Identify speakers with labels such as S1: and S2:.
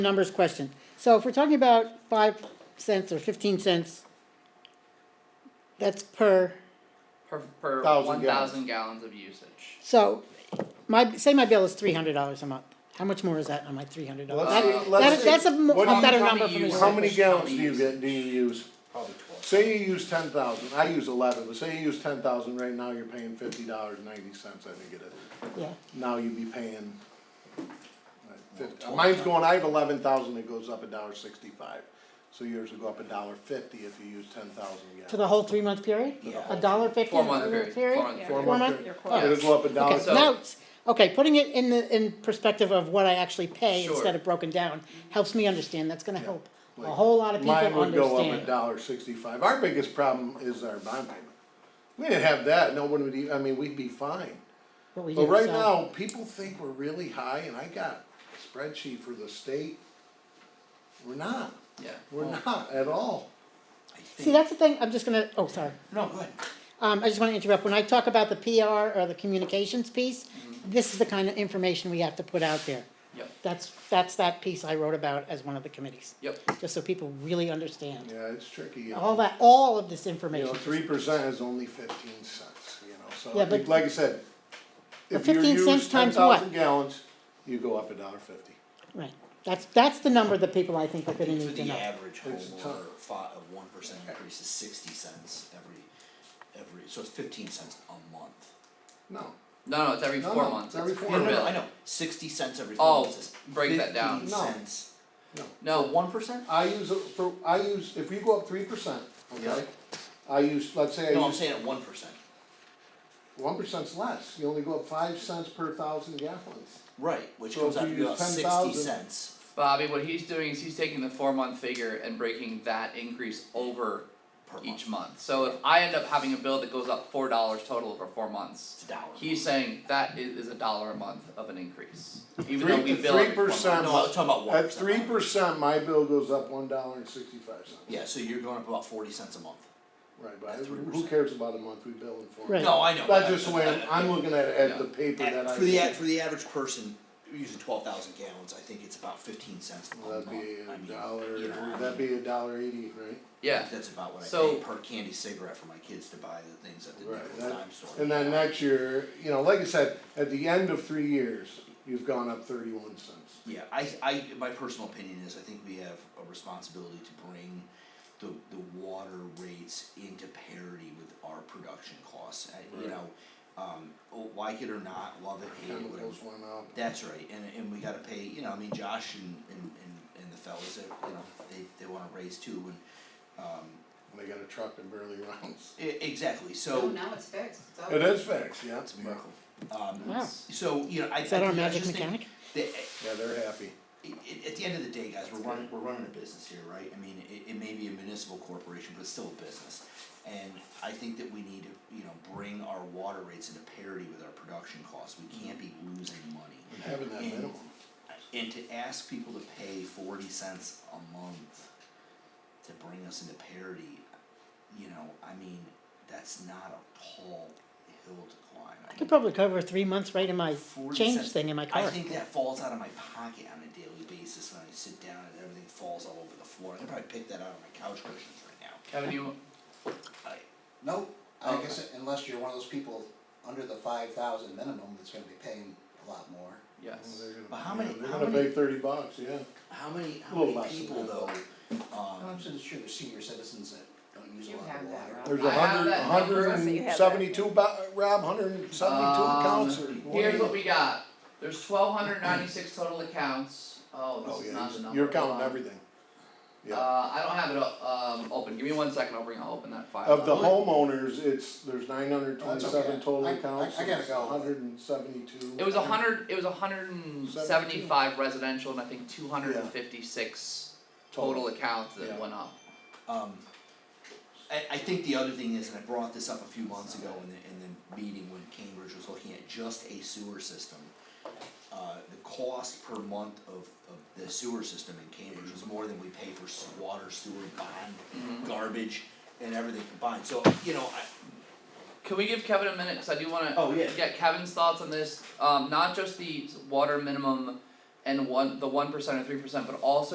S1: numbers question. So if we're talking about five cents or fifteen cents, that's per,
S2: per, per
S3: Thousand
S2: one
S3: gallons.
S2: thousand gallons of usage.
S1: so my, say my bill is three hundred dollars a month. How much more is that on my three hundred dollars?
S3: Let's
S2: see- let's see.
S1: That's a mo-
S3: What do
S1: a
S3: you-
S1: better
S2: how
S1: number
S2: many
S1: for me.
S2: use-
S3: How many gallons do you
S2: How
S3: get, do you use?
S4: Probably twelve.
S3: Say you use ten thousand, I use eleven, but say you use ten thousand, right now you're paying fifty dollars ninety cents, I think it is.
S1: Yeah,
S3: Now you'd be paying. like, fifty- Mine's going, I have eleven thousand, it goes up a dollar sixty-five, so yours will go up a dollar fifty if you use ten thousand
S1: for
S3: gallons.
S1: the whole three-month period?
S3: Yeah.
S1: A dollar fifty?
S2: Four month
S1: a
S2: period, four month
S3: Four
S2: period.
S1: Four
S3: month
S1: month?
S3: period.
S2: Yeah.
S3: It'll go up a dollar.
S1: Okay,
S2: So-
S1: now, it's- okay, putting it in the, in perspective of what I actually pay
S2: Sure.
S1: instead of broken down helps me understand, that's gonna help a
S3: Like,
S1: whole lot of people
S3: Mine would go up a
S1: understand.
S3: dollar sixty-five, our biggest problem is our bond payment. We didn't have that, no one would, e- I mean, we'd be fine.
S1: what we
S3: But
S1: do,
S3: right
S1: so-
S3: now, people think we're really high, and I got a spreadsheet for the state. We're not,
S2: Yeah.
S3: we're
S1: Oh.
S3: not at all.
S1: See, that's the thing, I'm just gonna, oh, sorry.
S2: No, go ahead.
S1: Um, I just wanna interrupt, when I talk about the PR or the communications piece,
S3: Mm-hmm.
S1: this is the kind of information we have to put out there.
S2: Yep,
S1: That's, that's that piece I wrote about as one of the committees,
S2: yep.
S1: just so people really understand.
S3: Yeah, it's tricky. you
S1: All
S3: know.
S1: that, all of this
S3: You know,
S1: information.
S3: three percent is only fifteen cents, you know,
S1: Yeah,
S3: so,
S1: but-
S3: like I said,
S1: But
S3: if you
S1: 15 cents
S3: use ten
S1: times what?
S3: thousand gallons, you go up a dollar fifty.
S1: Right, that's, that's the number that people I think are gonna
S4: For
S1: need to
S4: the
S1: know.
S4: average
S3: It's a
S4: homeowner,
S3: ton.
S4: thought of one percent increase is sixty cents every, every, so it's fifteen cents a month.
S3: No,
S2: No, no, it's every
S3: No,
S2: four
S3: no,
S2: months.
S3: it's every
S2: It's
S3: four
S2: per
S3: months.
S4: No,
S2: bill.
S4: no, I know, sixty cents every
S2: Oh,
S4: four months is
S2: break that down.
S4: fifteen
S3: No.
S4: cents.
S3: no.
S2: No,
S4: One percent?
S3: I use, a- for, I use, if you go up three percent, okay? I use, let's say
S4: No,
S3: I
S4: I'm
S3: use,
S4: saying at one percent,
S3: one percent's less, you only go up five cents per thousand gallons.
S4: right, which
S3: So
S4: comes
S3: if
S4: out
S3: you
S4: to be
S3: use
S4: about sixty
S3: 10,000
S4: cents.
S2: Bobby, what he's doing is he's taking the four month figure and breaking that increase over
S4: Per
S2: each
S4: month.
S2: month. So if I end up having a bill that goes up four dollars total over four months,
S4: It's a dollar.
S2: he's saying that is, is a dollar a month of an increase, even
S3: Three-
S2: though we bill every four months.
S3: 3%.
S4: No, I was talking about one
S3: At
S4: percent.
S3: three percent, my bill goes up one dollar and sixty-five cents.
S4: Yeah, so you're going up about forty cents a month.
S3: Right, but
S4: At
S3: who
S4: 3%.
S3: cares about a monthly bill in four?
S1: Right.
S4: No, I know.
S3: That's just the
S4: I-
S3: way, I'm,
S4: I-
S3: I'm looking at it, at the paper that
S4: At-
S3: I.
S4: For the, a- for the average person, using twelve thousand gallons, I think it's about fifteen cents a
S3: That'd
S4: month.
S3: be
S4: I
S3: a
S4: mean,
S3: dollar,
S4: you know, I
S3: that'd
S4: mean,
S3: be a dollar eighty, right?
S2: Yeah,
S4: That's about what I
S2: So-
S4: pay per candy cigarette for my kids to buy the things at the
S3: Right,
S4: nickel
S3: that-
S4: dime store.
S3: And then next year, you know, like I said, at the end of three years, you've gone up thirty-one cents.
S4: Yeah, I, I, my personal opinion is I think we have a responsibility to bring the, the water rates into parity with our production costs, I, you
S3: Right.
S4: know, um, oh, like it or not, love it, hate it, whatever.
S3: Chemicals went up.
S4: That's right, and and we gotta pay, you know, I mean, Josh and and and and the fellas, they, you know, they they wanna raise too, and um,
S3: They got a truck that barely runs.
S4: e- exactly,
S5: No,
S4: so.
S5: now it's fixed, it's over.
S3: It is fixed, yeah.
S4: It's a miracle. Um,
S1: Wow.
S4: so, you know, I I
S1: Is that our
S4: think- I
S1: magic
S4: just think
S1: mechanic?
S4: that,
S3: Yeah, they're happy.
S4: at, at the end of the day, guys, we're running, we're running a business here, right? I mean, it, it may be a municipal corporation, but it's still a business. And I think that we need to, you know, bring our water rates into parity with our production costs. We can't be
S1: Mm-hmm.
S4: losing money.
S3: Having that
S4: And-
S3: minimum.
S4: And to ask people to pay forty cents a month to bring us into parity, you know, I mean, that's not a tall hill to climb. I
S1: I could
S4: mean,
S1: probably cover three months right in my
S4: 40
S1: change
S4: cents.
S1: thing in my
S4: I
S1: car.
S4: think that falls out of my pocket on a daily basis when I sit down and everything falls all over the floor. I could probably pick that out of my couch cushions right now.
S2: Kevin, you,
S4: I,
S6: Nope, I
S2: Okay.
S6: guess unless you're one of those people under the five thousand minimum that's gonna be paying a lot more.
S3: Well,
S2: yes,
S3: they're gonna-
S4: But how many-
S3: yeah, They're
S4: how
S3: gonna
S4: many-
S3: pay thirty bucks, yeah.
S4: how many, how
S3: Little
S4: many
S3: less than
S4: people
S3: that.
S4: though,
S6: I'm
S4: um,
S6: sure, sure there's senior citizens that don't use a
S5: You
S6: lot
S5: have
S6: of
S5: that,
S6: water.
S5: Rob.
S3: There's
S2: I
S3: a
S2: have
S3: hundred,
S2: that
S3: a hundred
S7: number.
S3: and seventy-two, bo- Rob, hundred and seventy-two
S2: Um,
S3: accounts or.
S2: here's what we got, there's twelve hundred ninety six total accounts, oh,
S3: Oh,
S2: this is
S3: yeah,
S2: not the number.
S3: you're
S2: Hold
S3: counting
S2: on.
S3: everything. Yeah,
S2: Uh, I don't have it o- um, open. Give me one second. I'll bring. I'll open that file.
S3: of the
S2: up.
S3: homeowners, it's, there's nine hundred twenty-seven
S6: okay.
S3: total
S6: I- I-
S3: accounts,
S6: I gotta
S3: it's
S6: go.
S3: hundred and seventy-two.
S2: It was a hundred. It was a hundred and seventy-five residential and I think two hundred and fifty-six total accounts that
S3: Yeah.
S2: went up.
S4: um, I, I think the other thing is, and I brought this up a few months ago in the, in the meeting when Cambridge was looking at just a sewer system. Uh, the cost per month of, of the sewer system in Cambridge was more than we pay for s- water, sewer, bond, garbage, and everything combined, so, you know, I,
S2: Can we give Kevin a minute? Cause I do wanna
S4: Oh, yeah.
S2: get Kevin's thoughts on this. Um, not just the water minimum and and one, the one percent or three percent, but also